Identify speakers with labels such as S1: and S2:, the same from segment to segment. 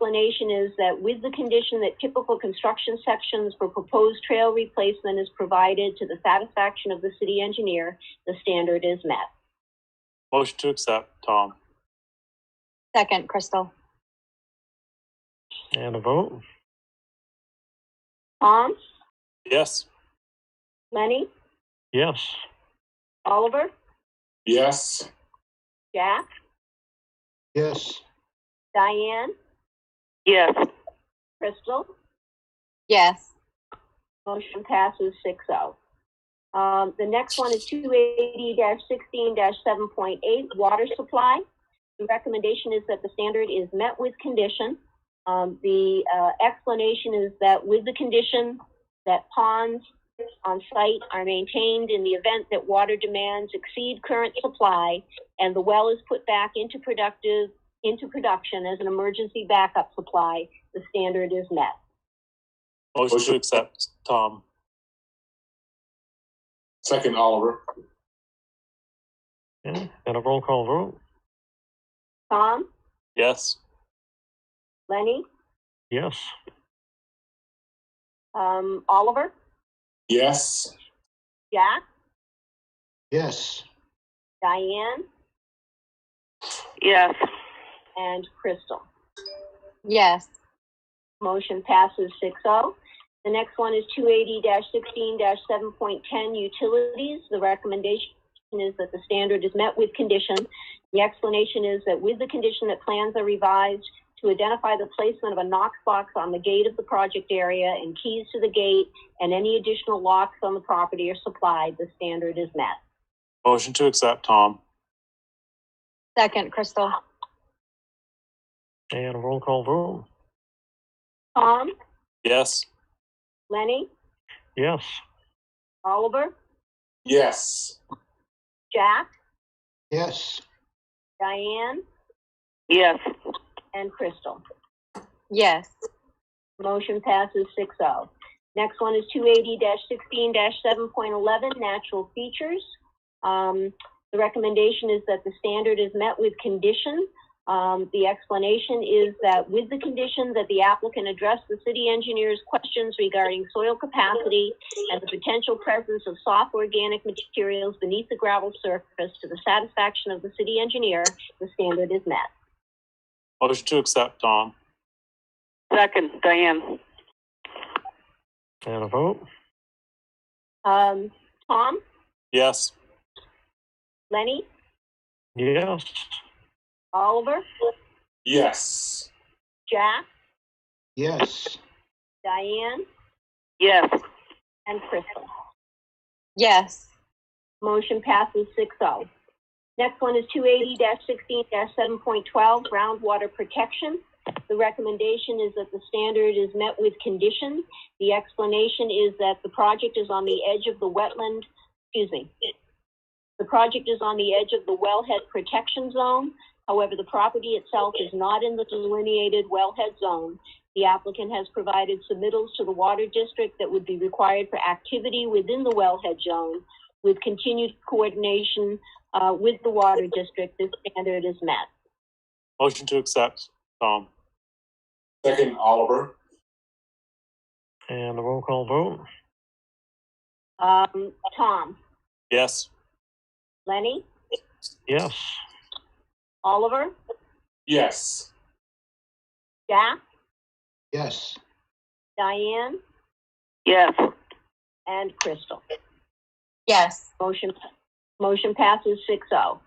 S1: Explanation is that with the condition that typical construction sections for proposed trail replacement is provided to the satisfaction of the city engineer, the standard is met.
S2: Motion to accept, Tom.
S3: Second, Crystal.
S4: And a vote?
S1: Tom,
S2: Yes.
S1: Lenny,
S4: Yes.
S1: Oliver,
S2: Yes.
S1: Jack,
S4: Yes.
S1: Diane,
S5: yes,
S1: Crystal,
S3: Yes.
S1: Motion passes six oh. Um, the next one is two eighty sixteen seven point eight, water supply. The recommendation is that the standard is met with condition. Um, the, uh, explanation is that with the condition that ponds on site are maintained in the event that water demands exceed current supply and the well is put back into productive, into production as an emergency backup supply, the standard is met.
S2: Motion to accept, Tom.
S6: Second, Oliver.
S4: And a roll call vote?
S1: Tom,
S2: Yes.
S1: Lenny?
S4: Yes.
S1: Um, Oliver,
S6: Yes.
S1: Jack,
S4: Yes.
S1: Diane,
S5: yes,
S1: and Crystal.
S3: Yes.
S1: Motion passes 6-0. The next one is two eighty sixteen seven point ten utilities. The recommendation is that the standard is met with condition. The explanation is that with the condition that plans are revised to identify the placement of a Knox box on the gate of the project area and keys to the gate and any additional locks on the property are supplied, the standard is met.
S2: Motion to accept, Tom.
S3: Second, Crystal.
S4: And a roll call vote?
S1: Tom,
S2: Yes.
S1: Lenny,
S4: Yes.
S1: Oliver,
S6: Yes.
S1: Jack,
S4: Yes.
S1: Diane,
S5: yes,
S1: and Crystal.
S3: Yes.
S1: Motion passes 6-0. Next one is two eighty sixteen seven point eleven, natural features. Um, the recommendation is that the standard is met with condition. Um, the explanation is that with the condition that the applicant address the city engineer's questions regarding soil capacity and the potential presence of soft organic materials beneath the gravel surface to the satisfaction of the city engineer, the standard is met.
S2: Motion to accept, Tom.
S5: second, Diane,
S4: And a vote?
S1: Um, Tom,
S2: Yes.
S1: Lenny,
S4: Yes.
S1: Oliver,
S6: Yes.
S1: Jack,
S4: Yes.
S1: Diane,
S5: yes,
S1: and Crystal.
S3: Yes.
S1: Motion passes 6-0. Next one is two eighty sixteen seven point twelve, groundwater protection. The recommendation is that the standard is met with condition. The explanation is that the project is on the edge of the wetland, excuse me. The project is on the edge of the wellhead protection zone. However, the property itself is not in the delineated wellhead zone. The applicant has provided submittals to the water district that would be required for activity within the wellhead zone with continued coordination uh, with the water district, this standard is met.
S2: Motion to accept, Tom.
S6: Second, Oliver.
S4: And a roll call vote?
S1: Um, Tom,
S2: Yes.
S1: Lenny,
S4: Yes.
S1: Oliver,
S6: Yes.
S1: Jack,
S4: Yes.
S1: Diane,
S5: yes,
S1: and Crystal.
S3: Yes.
S1: Motion, motion passes 6-0.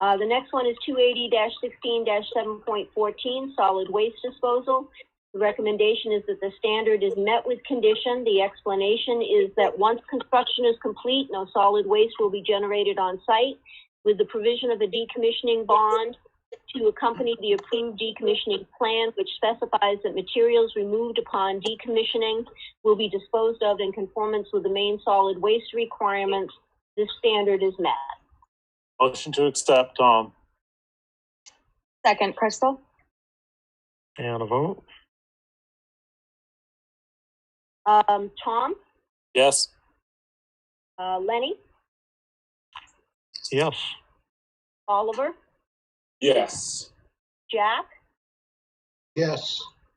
S1: Uh, the next one is two eighty sixteen seven point fourteen, solid waste disposal. The recommendation is that the standard is met with condition. The explanation is that once construction is complete, no solid waste will be generated on site with the provision of a decommissioning bond to accompany the approved decommissioning plan, which specifies that materials removed upon decommissioning will be disposed of in conformance with the main solid waste requirements this standard is met.
S2: Motion to accept, Tom.
S3: Second, Crystal.
S4: And a vote?
S1: Um, Tom,
S2: Yes.
S1: uh, Lenny,
S4: Yes.
S1: Oliver,
S6: Yes.
S1: Jack,
S4: Yes.